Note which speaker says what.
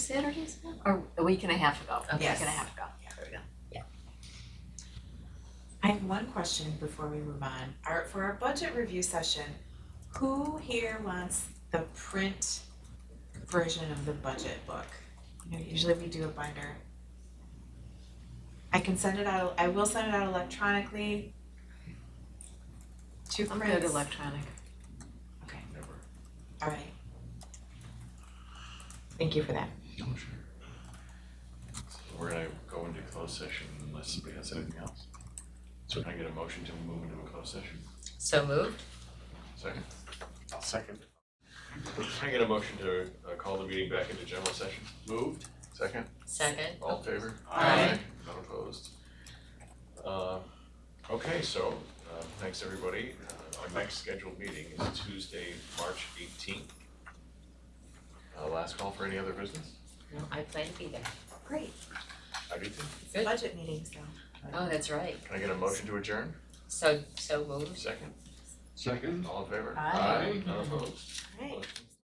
Speaker 1: Saturdays ago, or a week and a half ago, a week
Speaker 2: Yes.
Speaker 1: and a half ago, there we go.
Speaker 2: I have one question before we move on. Our, for our budget review session, who here wants the print version of the budget book? You know, usually we do a binder. I can send it out, I will send it out electronically. Two
Speaker 1: I'm
Speaker 2: prints.
Speaker 1: good electronic.
Speaker 2: Okay. All right. Thank you for that.
Speaker 3: I'm sure. So We're gonna go into closed session unless somebody has anything else. So can I get a motion to move into a closed session?
Speaker 4: So moved.
Speaker 3: 2nd second. Can I get a motion to uh, call the meeting back into general session? Moved. Second,
Speaker 4: Second. Oh,
Speaker 3: all in favor?
Speaker 4: Aye.
Speaker 3: None opposed? Uh, okay, so, uh, thanks everybody. Uh, our next scheduled meeting is Tuesday, March eighteenth. Uh, last call for any other business?
Speaker 4: No, I plan to be there.
Speaker 1: Great.
Speaker 3: I beat them.
Speaker 4: Good.
Speaker 2: Budget meetings though.
Speaker 4: Oh, that's right.
Speaker 3: Can I get a motion to adjourn?
Speaker 4: So, so moved.
Speaker 3: Second,
Speaker 5: Second?
Speaker 3: all in favor?
Speaker 2: Aye.
Speaker 3: None opposed?
Speaker 2: All right.
Speaker 3: Motion